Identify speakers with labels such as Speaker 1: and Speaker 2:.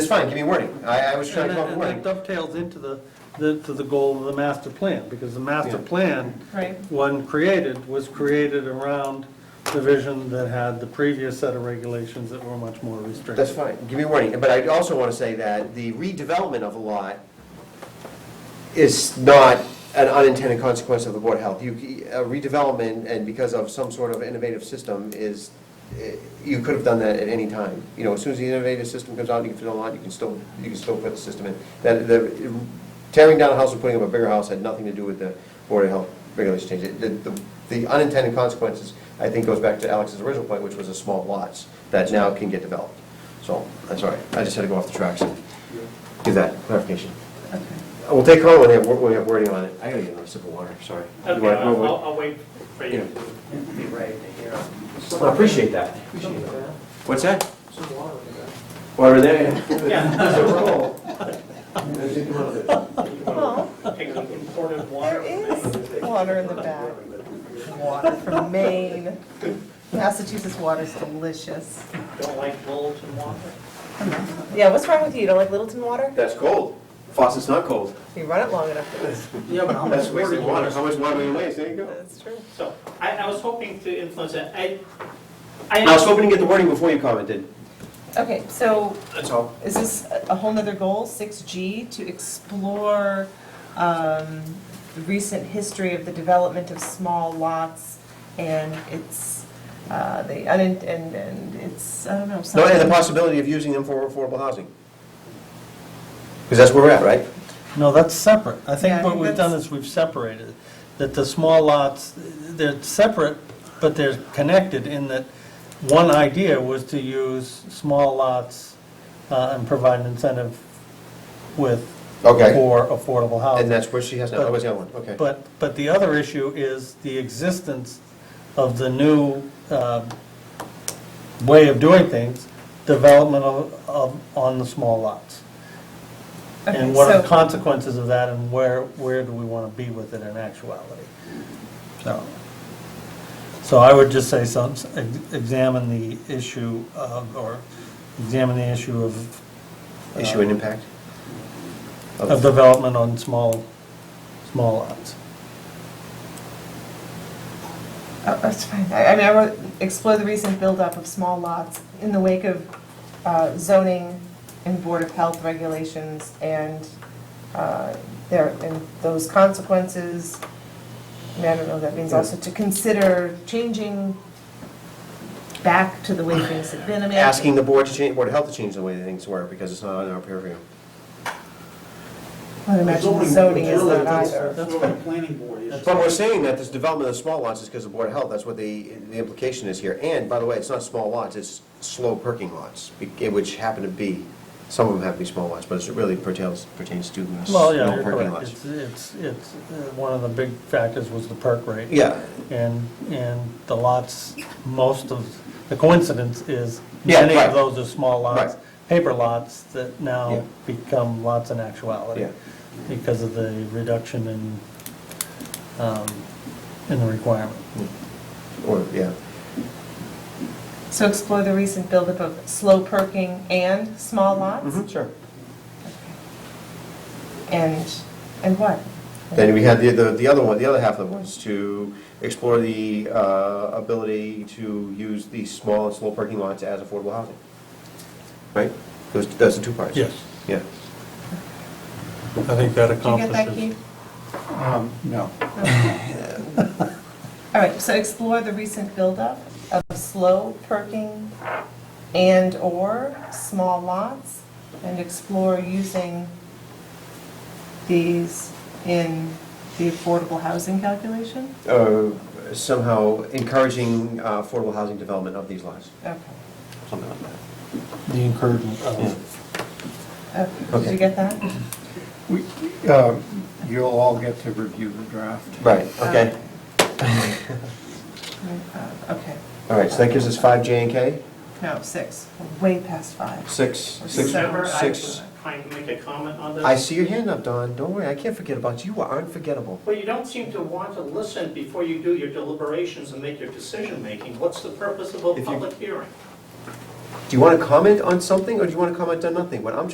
Speaker 1: fine, give me warning. I, I was trying to go with
Speaker 2: And that
Speaker 1: warning.
Speaker 2: dovetails into the, the- to the goal of the master plan, because the master
Speaker 1: Yeah.
Speaker 2: plan,
Speaker 3: Right.
Speaker 2: when created, was created around the vision that had the previous set of regulations that were much more restrictive.
Speaker 1: That's fine, give me warning. But I also want to say that the redevelopment of a lot is not an unintended consequence of the Board of Health. You, a redevelopment, and because of some sort of innovative system, is, eh, you could have done that at any time. You know, as soon as the innovative system comes out, you can fit a lot, you can still, you can still put the system in. That, the, tearing down a house and putting up a bigger house had nothing to do with the Board of Health regulation change. It- The, the- the unintended consequences, I think, goes back to Alex's original point, which was the small lots that now can get developed. So, I'm sorry, I just had to go off the tracks and do that clarification. We'll take call when we have, when we have wording on it. I gotta get another sip of water, sorry. You
Speaker 4: Okay,
Speaker 1: want-
Speaker 4: I'll,
Speaker 1: no,
Speaker 4: I'll I'll wait for you
Speaker 1: Yeah.
Speaker 4: to be ready to hear.
Speaker 1: wait. I appreciate that.
Speaker 4: Appreciate that.
Speaker 1: What's that?
Speaker 4: Some water in there.
Speaker 1: Water there?
Speaker 4: Yeah.
Speaker 3: Well,
Speaker 4: Take some imported water.
Speaker 3: there is water in the back. Water from Maine. Massachusetts water's delicious.
Speaker 4: Don't like bulbs and water.
Speaker 3: Yeah, what's wrong with you? You don't like Littleton water?
Speaker 1: That's cold. Faucet's not cold.
Speaker 3: You run it long enough, it is.
Speaker 5: Yeah, but how much
Speaker 1: That's wasted
Speaker 5: water?
Speaker 1: water. How much water we waste? There you go.
Speaker 3: That's true.
Speaker 4: So I, I was hoping to influence it. I,
Speaker 1: I was
Speaker 4: I,
Speaker 1: hoping to get the wording before you commented.
Speaker 3: Okay, so
Speaker 1: That's all.
Speaker 3: is this a- a whole nother goal, six G, to explore um, the recent history of the development of small lots and its, uh, the, unin- and, and it's, I don't know,
Speaker 1: No, and the
Speaker 3: something.
Speaker 1: possibility of using them for affordable housing. Because that's where we're at, right?
Speaker 2: No, that's separate. I
Speaker 3: Yeah, I
Speaker 2: think what
Speaker 3: think
Speaker 2: we've done
Speaker 3: that's-
Speaker 2: is we've separated, that the small lots, they're separate, but they're connected in that one idea was to use small lots uh, and provide an incentive with,
Speaker 1: Okay.
Speaker 2: for affordable
Speaker 4: Oh.
Speaker 2: housing.
Speaker 1: And that's where she has, now. that Oh, was the other one, okay.
Speaker 2: But, but the other issue is the existence of the new um, way of doing things, development of, of, on the small lots.
Speaker 3: Okay,
Speaker 2: And what are the
Speaker 3: so-
Speaker 2: consequences of that, and where, where do we want to be with it in actuality? So, so I would just say some, examine the issue of, or examine the issue of,
Speaker 1: Issue and impact?
Speaker 2: Um, of development on small, small lots.
Speaker 3: Oh, That's fine. I I mean, I wrote, explore the recent buildup of small lots in the wake of uh, zoning and Board of Health regulations and uh, their, and those consequences. I mean, I don't know, that means also to consider changing back to the way things have been. I mean, I-
Speaker 1: Asking the board to change, Board of Health to change the way things work, because it's not on our purview.
Speaker 3: I would imagine the zoning is not either.
Speaker 5: That's what the planning board is.
Speaker 1: But we're saying that this development of small lots is because of Board of Health, that's what the, the implication is here. And, by the way, it's not small lots, it's slow perking lots, be- which happen to be, some of them happen to be small lots, but it really pertains, pertains to the
Speaker 2: Well, yeah,
Speaker 1: slow
Speaker 2: you're
Speaker 1: perking
Speaker 2: correct.
Speaker 1: lots.
Speaker 2: It's, it's, it's, uh, one of the big factors was the perk rate.
Speaker 1: Yeah,
Speaker 2: And, and the lots, most of, the coincidence is
Speaker 1: Yeah,
Speaker 2: many
Speaker 1: right.
Speaker 2: of those are small lots,
Speaker 1: Right.
Speaker 2: paper lots that
Speaker 1: Yeah.
Speaker 2: now become lots in actuality.
Speaker 1: Yeah.
Speaker 2: Because of the reduction in, um, in the requirement.
Speaker 1: or, yeah.
Speaker 3: So explore the recent buildup of slow perking and small lots?
Speaker 1: Mhm, Sure.
Speaker 3: And, and what?
Speaker 1: Then we had the, the, the other one, the other half of it was to explore the, uh, ability to use these small and slow parking lots as affordable housing. Right? Those, those are two parts.
Speaker 2: Yes.
Speaker 1: Yeah.
Speaker 2: I think that
Speaker 3: Did you get that, Keith?
Speaker 5: Um, no.
Speaker 3: All right, so explore the recent buildup of slow perking and/or small lots, and explore using these in the affordable housing calculation?
Speaker 1: Uh, somehow encouraging uh, affordable housing development of these lots,
Speaker 3: Okay,
Speaker 1: something like that.
Speaker 2: The encouragement of.
Speaker 3: okay, Uh, did
Speaker 1: Okay.
Speaker 3: you get that?
Speaker 5: We, um, you'll all get to review the draft.
Speaker 1: Right,
Speaker 4: Um,
Speaker 1: okay.
Speaker 3: Uh, Okay,
Speaker 1: All right, so that gives us five J and K,
Speaker 3: no, six, way past five.
Speaker 1: six, six,
Speaker 4: December, I was
Speaker 1: six.
Speaker 4: trying to make a comment on this.
Speaker 1: I see your hand up, Don, don't worry, I can't forget about you, you are unforgettable.
Speaker 4: Well, you don't seem to want to listen before you do your deliberations and make your decision-making. What's the purpose of
Speaker 1: If
Speaker 4: a
Speaker 1: you-
Speaker 4: public hearing?
Speaker 1: Do you want to comment on something, or do you want to comment on nothing? What I'm